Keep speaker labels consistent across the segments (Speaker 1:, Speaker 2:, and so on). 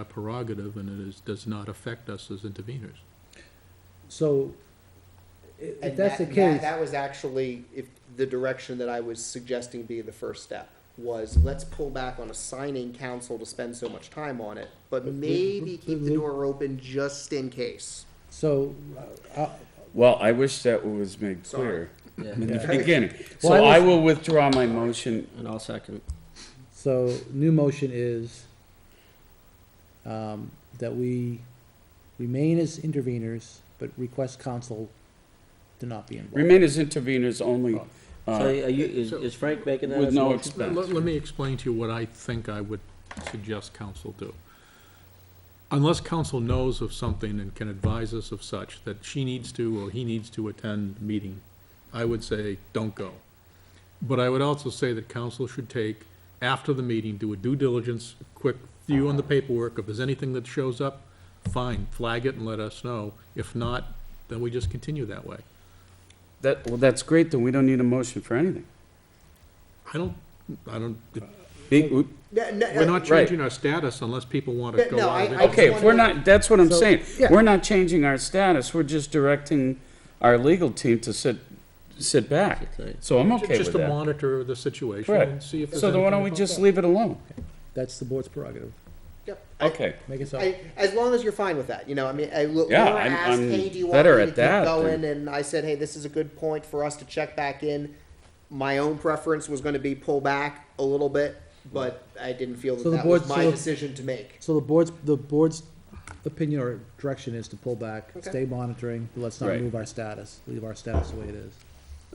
Speaker 1: our prerogative, and it is, does not affect us as interveners.
Speaker 2: So, i- if
Speaker 3: And
Speaker 2: that's the
Speaker 3: that- that-
Speaker 2: case,
Speaker 3: That was actually, if, the direction that I was suggesting be the first step, was let's pull back on assigning council to spend so much time on it, but maybe keep the door open just in case.
Speaker 2: so, uh, uh,
Speaker 4: Well, I wish that was made
Speaker 3: Sorry.
Speaker 4: clear in the beginning. So
Speaker 2: Well, I
Speaker 4: I
Speaker 2: was-
Speaker 4: will withdraw my motion.
Speaker 5: And I'll second.
Speaker 2: so new motion is um, that we remain as interveners, but request council to not be involved.
Speaker 4: Remain as interveners only,
Speaker 5: Oh. So
Speaker 4: uh,
Speaker 5: are you, is, is Frank making that
Speaker 4: with
Speaker 5: as a
Speaker 4: no
Speaker 5: motion?
Speaker 1: Let,
Speaker 4: expense.
Speaker 1: let me explain to you what I think I would suggest council do. Unless council knows of something and can advise us of such, that she needs to or he needs to attend meeting, I would say, don't go. But I would also say that council should take, after the meeting, do a due diligence, quick view on the paperwork. If there's anything that shows up, fine, flag it and let us know. If not, then we just continue that way.
Speaker 4: That, well, that's great, then we don't need a motion for anything.
Speaker 1: I don't, I don't,
Speaker 4: Be-
Speaker 1: we're
Speaker 3: uh,
Speaker 1: not
Speaker 4: Right.
Speaker 1: changing our status unless people want to
Speaker 3: Yeah,
Speaker 1: go
Speaker 3: no,
Speaker 1: out. of
Speaker 3: I- I
Speaker 1: it.
Speaker 4: Okay, if we're not, that's what I'm
Speaker 2: So,
Speaker 4: saying.
Speaker 2: yeah.
Speaker 4: We're not changing our status, we're just directing our legal team to sit, sit back. So I'm okay
Speaker 1: Just
Speaker 4: with
Speaker 1: to
Speaker 4: that.
Speaker 1: monitor the situation and
Speaker 4: Correct.
Speaker 1: see if there's
Speaker 4: So then why don't we
Speaker 1: anything
Speaker 4: just
Speaker 1: about
Speaker 4: leave it alone?
Speaker 2: That's the board's prerogative.
Speaker 3: Yep. I-
Speaker 4: Okay.
Speaker 2: Make it so.
Speaker 3: I, as long as you're fine with that, you know, I mean, I, Laura
Speaker 4: Yeah, I'm-
Speaker 3: asked,
Speaker 4: I'm
Speaker 3: hey, do you want
Speaker 4: better
Speaker 3: me
Speaker 4: at
Speaker 3: to keep
Speaker 4: that
Speaker 3: going?
Speaker 4: than-
Speaker 3: And I said, hey, this is a good point for us to check back in. My own preference was gonna be pull back a little bit, but I didn't feel
Speaker 2: So
Speaker 3: that
Speaker 2: the
Speaker 3: that was
Speaker 2: board-
Speaker 3: my
Speaker 2: so-
Speaker 3: decision to make.
Speaker 2: So the board's, the board's opinion or direction is to pull back,
Speaker 3: Okay.
Speaker 2: stay monitoring, but let's not
Speaker 4: Right.
Speaker 2: move our status, leave our status the way it is.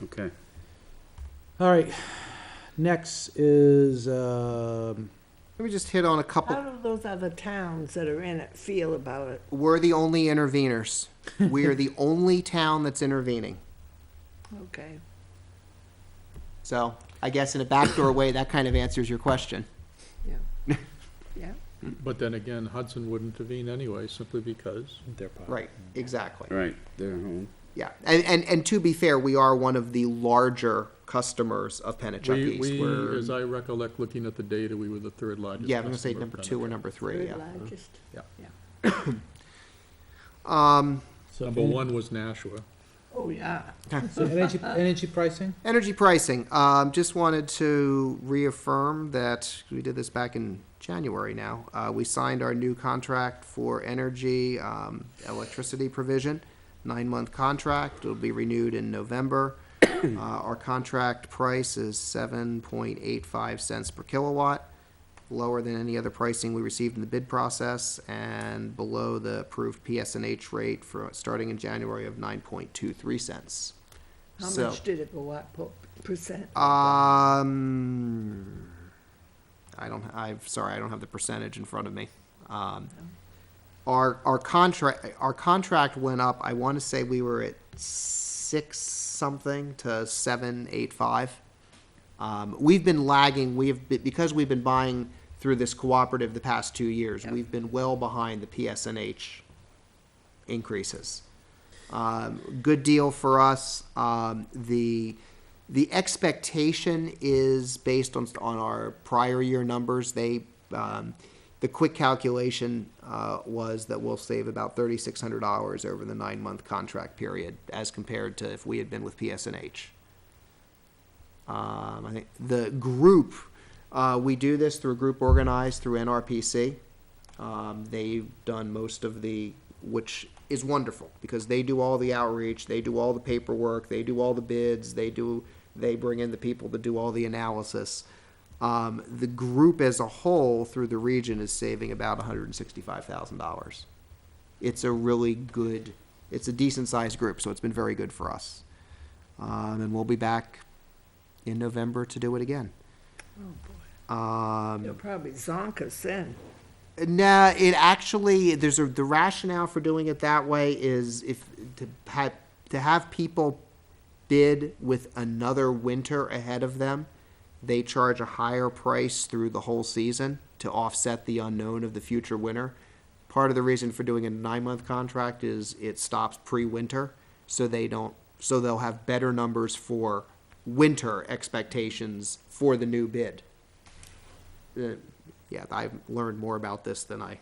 Speaker 4: Okay.
Speaker 2: All right, next is, um,
Speaker 3: Let me just hit on a couple
Speaker 6: How do those other towns that are in it feel about it?
Speaker 3: We're the only interveners. we are the only town that's intervening.
Speaker 6: Okay.
Speaker 3: So I guess in a backdoor way, that kind of answers your question.
Speaker 6: Yeah. Yeah.
Speaker 1: it. But then again, Hudson would intervene anyway, simply because.
Speaker 3: Right, exactly.
Speaker 4: All right, they're home.
Speaker 3: Yeah. And, and, and to be fair, we are one of the larger customers of Pennachuck
Speaker 1: We,
Speaker 3: East.
Speaker 1: we,
Speaker 3: We're-
Speaker 1: as I recollect, looking at the data, we were the third largest.
Speaker 3: yeah, I'm going to say
Speaker 1: customer of
Speaker 3: number two or
Speaker 1: Benetton.
Speaker 3: number three.
Speaker 6: Third
Speaker 3: Yeah.
Speaker 5: Uh-huh.
Speaker 6: largest.
Speaker 1: Yeah.
Speaker 6: Yeah.
Speaker 2: so
Speaker 1: Number one was Nashua.
Speaker 6: Oh, yeah.
Speaker 2: So energy, energy pricing?
Speaker 3: Energy pricing. Um, just wanted to reaffirm that we did this back in January now. Uh, we signed our new contract for energy, um, electricity provision, nine month contract. It'll be renewed in November. Uh, our contract price is 7.85 cents per kilowatt, lower than any other pricing we received in the bid process and below the approved PSNH rate for starting in January of 9.23 cents.
Speaker 6: How
Speaker 3: So-
Speaker 6: much did it go up, po- percent?
Speaker 5: Mm.
Speaker 3: um, I don't. I'm sorry. I don't have the percentage in front of me. Um, our our contract our contract went up. I want to say we were at six something to seven eight five. Um, we've been lagging. We have been, because we've been buying through this cooperative the past two years. We've been well behind the PSNH increases. Um, good deal for us. Um, the the expectation is based on on our prior year numbers. They um, the quick calculation uh, was that we'll save about thirty six hundred dollars over the nine month contract period, as compared to if we had been with PSNH. Um, I think the group, uh, we do this through a group organized through NRPC. Um, they've done most of the, which is wonderful because they do all the outreach, they do all the paperwork, they do all the bids, they do, they bring in the people to do all the analysis. Um, the group as a whole through the region is saving about $165,000. It's a really good, it's a decent sized group, so it's been very good for us. Um, and we'll be back in November to do it again. Um,
Speaker 6: You're probably zonkers then.
Speaker 3: no, it actually there's a the rationale for doing it that way is if to have to have people bid with another winter ahead of them, they charge a higher price through the whole season to offset the unknown of the future winter. Part of the reason for doing a nine month contract is it stops pre winter, so they don't so they'll have better numbers for winter expectations for the new bid uh, yeah, I've learned more about this than I